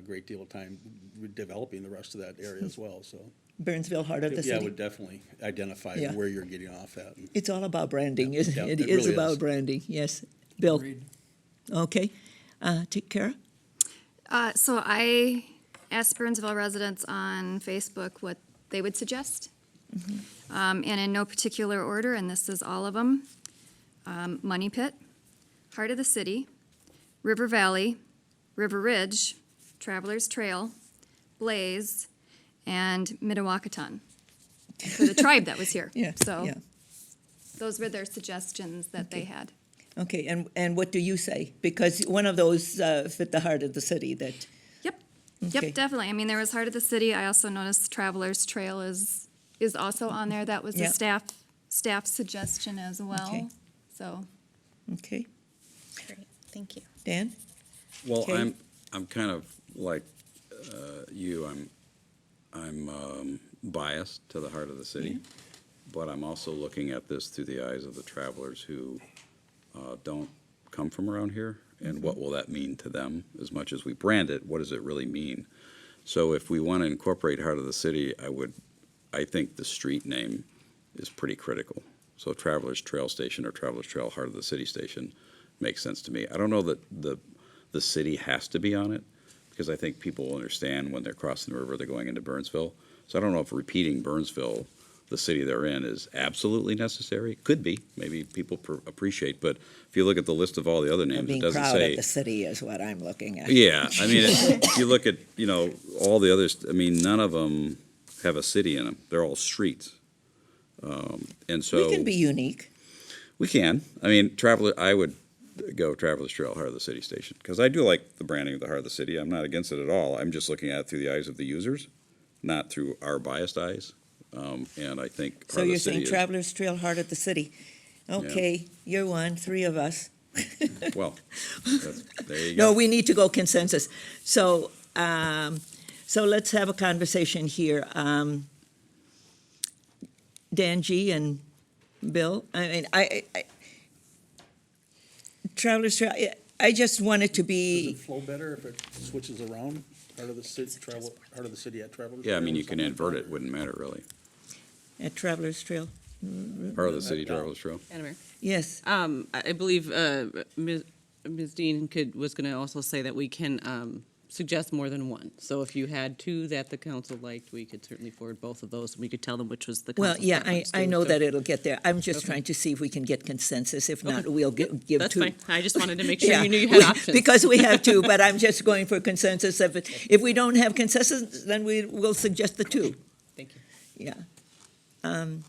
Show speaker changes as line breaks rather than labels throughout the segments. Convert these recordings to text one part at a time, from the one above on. great deal of time developing the rest of that area as well, so.
Burnsville, heart of the
Yeah, I
city.
would definitely identify
Yeah.
where you're getting off at. and-
It's all about branding, isn't
yeah,
it?
it
It is
really is.
about branding, yes. Bill,
Agreed.
okay. Uh, t- Kara?
Uh, so I asked Burnsville residents on Facebook what they would suggest,
Mm-hmm.
um, and in no particular order, and this is all of them. Um, Money Pit, Heart of the City, River Valley, River Ridge, Travelers Trail, Blaze, and Midawakaton. For the tribe that was here.
Yeah,
So
yeah.
those were their suggestions that they had.
Okay, and, and what do you say? Because one of those uh, fit the heart of the city that,
Yep,
Okay.
yep, definitely. I mean, there was Heart of the City. I also noticed Travelers Trail is, is also on there. That was the
Yep.
staff, staff suggestion as
Okay.
well. So,
okay,
Great, thank you.
Dan?
Well,
Kate?
I'm, I'm kind of like uh, you, I'm, I'm um, biased to the heart of the city, but I'm also looking at this through the eyes of the travelers who uh, don't come from around here, and what will that mean to them? As much as we brand it, what does it really mean? So if we want to incorporate heart of the city, I would, I think the street name is pretty critical. So Travelers Trail Station or Travelers Trail Heart of the City Station makes sense to me. I don't know that the, the city has to be on it, because I think people will understand when they're crossing the river, they're going into Burnsville. So I don't know if repeating Burnsville, the city they're in, is absolutely necessary. Could be, maybe people pr- appreciate, but if you look at the list of all the other names, it
Being
doesn't
proud of
say.
the city is what I'm looking at.
Yeah, I mean, if you look at, you know, all the others, I mean, none of them have a city in them. They're all streets. Um, And so.
We can be unique.
We can. I mean, traveler. I would go Traveler's Trail, Heart of the City Station, because I do like the branding of the Heart of the City. I'm not against it at all. I'm just looking at it through the eyes of the users, not through our biased eyes. Um, and I think
So
Heart of
you're
the City
saying
is-
Travelers Trail, heart of the city. Okay, you're one, three of us.
Well, that's, there you
No,
go.
we need to go consensus. So, um, so let's have a conversation here. Um, Dan G and Bill, I mean, I, I, I- Travelers Trail, I- I just want it
Does
to
it
be,
flow better if it switches around, heart of the city, travel, heart of the city at Travelers?
yeah, I
Trail
mean,
or
you can
something?
invert it. Wouldn't matter really.
Mm-hmm.
at Travelers Trail,
Heart of the City, Traveler's Trail.
Madam
yes.
Mayor, um, I I believe uh, Ms. Ms. Dean could, was going to also say that we can um, suggest more than one. So if you had two that the council liked, we could certainly forward both of those, and we could tell them which was the
Well,
council's
yeah, I,
preference,
I
too.
know
So-
that it'll get there. I'm just
Okay.
trying to see if we can get consensus. If not,
Okay.
we'll gi- give
That's
two.
fine. I just wanted to make sure
Yeah,
you knew you had
we-
options.
Because we have two, but I'm just going for consensus. If, it- if we don't have consensus, then we will suggest the two.
Thank you.
Yeah. Um,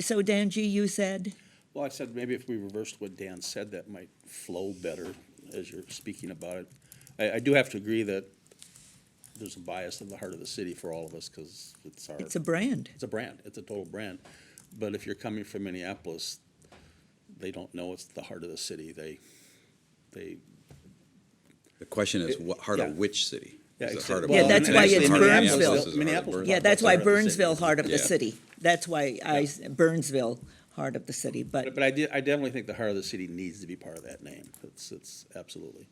So Danji, you said,
Well, I said maybe if we reversed what Dan said, that might flow better as you're speaking about it. I, I do have to agree that there's a bias in the heart of the city for all of us because it's our,
it's a brand.
it's a brand, it's a total brand. But if you're coming from Minneapolis, they don't know it's the heart of the city. They, they,
The question is, what heart
Yeah.
of which city?
Yeah,
Is it
except-
heart of
Yeah,
Burlington?
that's why
Actually,
it's
heart of
Burnsville.
is it heart of
Minneapolis.
Burlington?
Yeah, that's why
Heart of the city.
Burnsville, heart of the
Yeah.
city. That's why I, s- Burnsville, heart of the city, but,
but I did, I definitely think the heart of the city needs to be part of that name. It's, it's absolutely,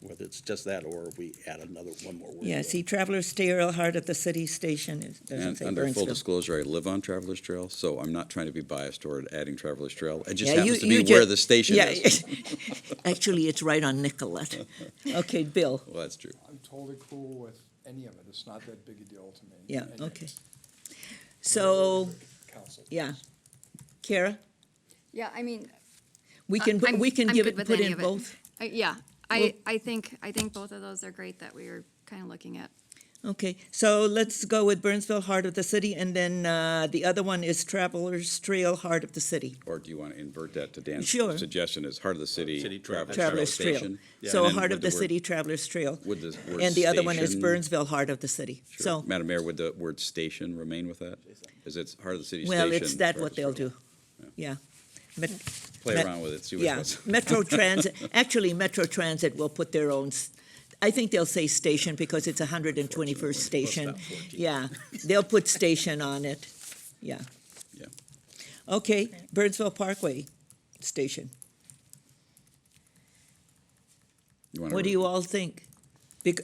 whether it's just that or we add another, one more word.
yeah,
to it.
see, Travelers Trail, heart of the city station, it doesn't
And
say
under full
Burnsville.
disclosure, I live on Travelers Trail, so I'm not trying to be biased toward adding Travelers Trail. It just
Yeah, you-
happens to be
you ju-
where the station
yeah,
is.
Actually, it's right on Nicollet. Okay, Bill,
Well, that's true.
I'm totally cool with any of it. It's not that big a deal to me.
Yeah,
Anyway,
okay. so,
Council.
yeah. Kara,
yeah, I mean,
we
I-
can, put-
Uh, I'm-
we can
I'm
give
good
it,
with
put
any
in
of it.
both.
I- yeah,
Well-
I, I think, I think both of those are great that we were kind of looking at.
Okay, so let's go with Burnsville, Heart of the City, and then uh, the other one is Travelers Trail, Heart of the City.
Or do you want to invert that to Dan's
Sure.
suggestion as heart of the
City
city, Travelers Trail
Travelers Trail.
Station?
So
and then
Heart
with
of the
word-
City, Travelers Trail.
Would the word
And the other one is
station-
Burnsville, Heart of the City.
Sure.
So,
Madam Mayor, would the word station remain with that? Is it heart of the city station?
well, it's that what
Travelers
they'll
Trail?
do. Yeah. Met-
Play
Met-
around with it, see
Yeah,
what's.
Metro Transit, actually Metro Transit will put their own, s- I think they'll say station because it's 121st Station.
about 14.
Yeah, they'll put station on it, yeah.
Yeah.
Okay, Burnsville Parkway Station.
wanna
What do
re-
you all think? Bec-